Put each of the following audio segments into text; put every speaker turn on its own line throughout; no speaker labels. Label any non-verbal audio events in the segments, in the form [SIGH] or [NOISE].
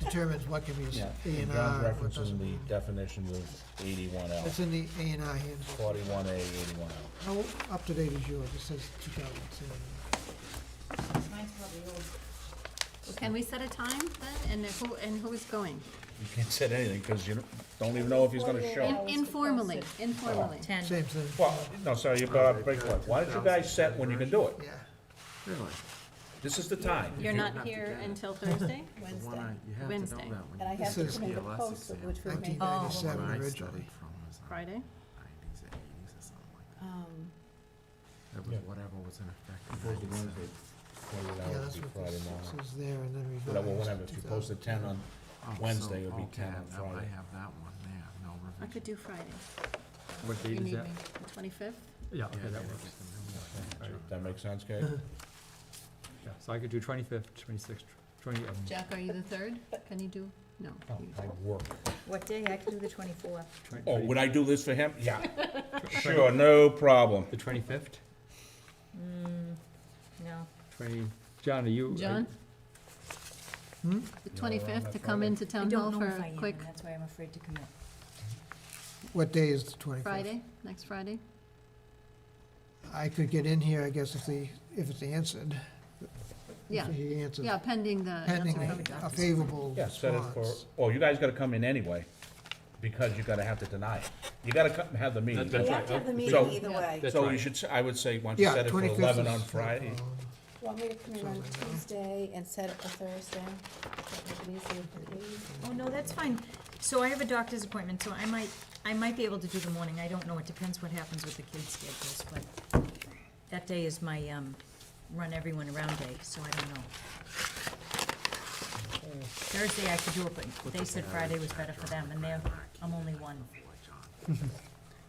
determines what can be
Yeah,
A
and
and
John's
R, what
referencing
doesn't.
the definition of eighty-one L,
That's in the A and R handbook.
forty-one A, eighty-one L.
How up to date is yours? It says two thousand ten.
Mine's probably old.
Can we set a time then, and who, and who's going?
You can't say anything, because you don't- don't even know if he's gonna show.
In- Informally, informally.
Ten.
Same thing,
Well, no, sorry, you brought up a big one. Why don't you guys set when you can do it?
yeah.
Really?
This is the time.
You're
have
not
to
here
get it.
until Thursday?
The one I- you have to know
Wednesday.
that one.
And I have
This
to
is
make a
PLS
post,
exam.
which would make.
Nineteen ninety-seven
Where I
originally.
studied from was in the
Friday?
90s or 80s or something like that.
Um,
That
Yeah.
was whatever was in effect in
Supposed to be
97.
Yeah,
Wednesday, forty-eight hours
that's
would be
what
Friday
this
morning.
says there and then revised.
Well, whatever, if you
2000.
post at ten on,
Oh, so,
Wednesday would be
okay,
10 on
now I
Friday.
have that one there, no revision.
I could do Friday,
What
You
date is
need
that?
me, the twenty-fifth?
Yeah,
Yeah, I
okay, that
gotta
works.
get the new one.
Does that make sense,
[LAUGHS]
Kate?
Yeah, so I could do twenty-fifth, twenty-sixth, twenty, um,
Jack, are you the third? Can you do? No.
Oh,
you-
I work.
What day? I can do the twenty-fourth.
twenty,
Oh,
twenty,
would I do this for him? Yeah, sure, no problem.
the twenty-fifth,
Hmm,
No.
twenty, John, are you? are-
John?
Hmm?
The
on
twenty-fifth
that
to come
Friday?
into
I
town hall
don't
for
know if
a
I am,
quick
and that's why I'm afraid to commit.
What day is the twenty-fifth?
Friday, next Friday?
I could get in here, I guess, if the, if it's answered.
Yeah,
If he answers,
yeah, pending the answer
pending
from
a favorable
Yeah, set it for,
response.
oh, you guys gotta come in anyway, because you're gonna have to deny it. You gotta come, have the meeting.
That- that's
We
right.
have to have the
So-
meeting either
Yeah.
way.
That's
So
right.
you should, s- I would say, once you
Yeah,
set it for
twenty-fifth is. Oh,
eleven on
no
Friday,
problem.
Want me to come in on
Sounds like that.
Tuesday and set it for Thursday? Does that make it easier for you?
Oh, no, that's fine. So I have a doctor's appointment, so I might, I might be able to do the morning. I don't know. It depends what happens with the kids' schedules, but that day is my, um, run everyone around day, so I don't know. Thursday I could do it, but they said Friday was better for them, and they're, I'm only one.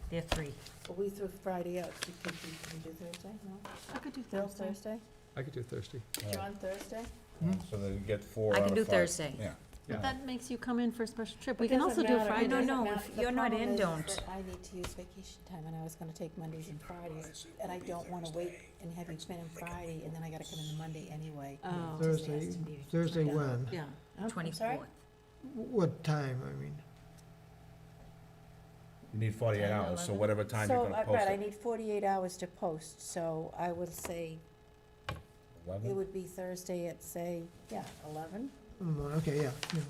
They're three.
Are we through Friday out, so can we, can we do Thursday, no?
I could do
Bill,
Thursday.
Thursday?
I could do Thursday.
John, Thursday?
Uh, so they get four
I
out
can
of
do
five.
Thursday.
Yeah.
But that makes you come in for a special trip.
It
We can
doesn't
also do
matter, it
Friday.
No,
doesn't
no,
matter.
if
The
you're not
problem
in,
is
don't.
that I need to use vacation time, and I was gonna take Mondays and Fridays, and I don't wanna wait and have you come in on Friday, and then I gotta come in on Monday anyway.
Oh.
It just has
Thursday,
to be
Thursday
done.
when?
Yeah.
Huh? I'm sorry?
Twenty-fourth.
What time, I mean?
You need forty-eight
Ten,
hours, so
eleven.
whatever time you're
So,
gonna
uh,
post
right, I
it.
need forty-eight hours to post, so I would say it
Eleven?
would be Thursday at, say, yeah, eleven,
Mm, Okay, yeah, yeah.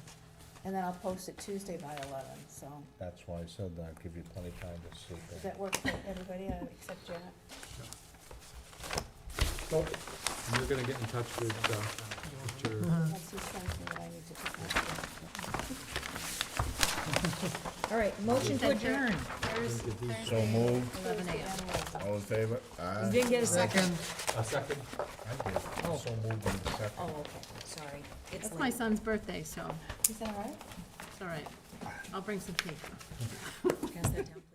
and then I'll post it Tuesday by eleven, so.
That's why I said that, give you plenty of time to sleep.
Does
in.
that work for everybody uh, except Janet?
Oh, You're gonna get in touch with, uh,
Uh-huh.
Mr.
Unless he sends me what I need to do.
All right, motion to adjourn.
Thurs- Thursday.
So moved,
Eleven AM.
all in favor?
You
Aye.
didn't get a second?
Second,
A second.
I did. So moved in second.
Oh, okay, sorry. It's
It's my
late.
son's birthday, so
Is that all right?
it's all right. I'll bring some cake.
Pass that down.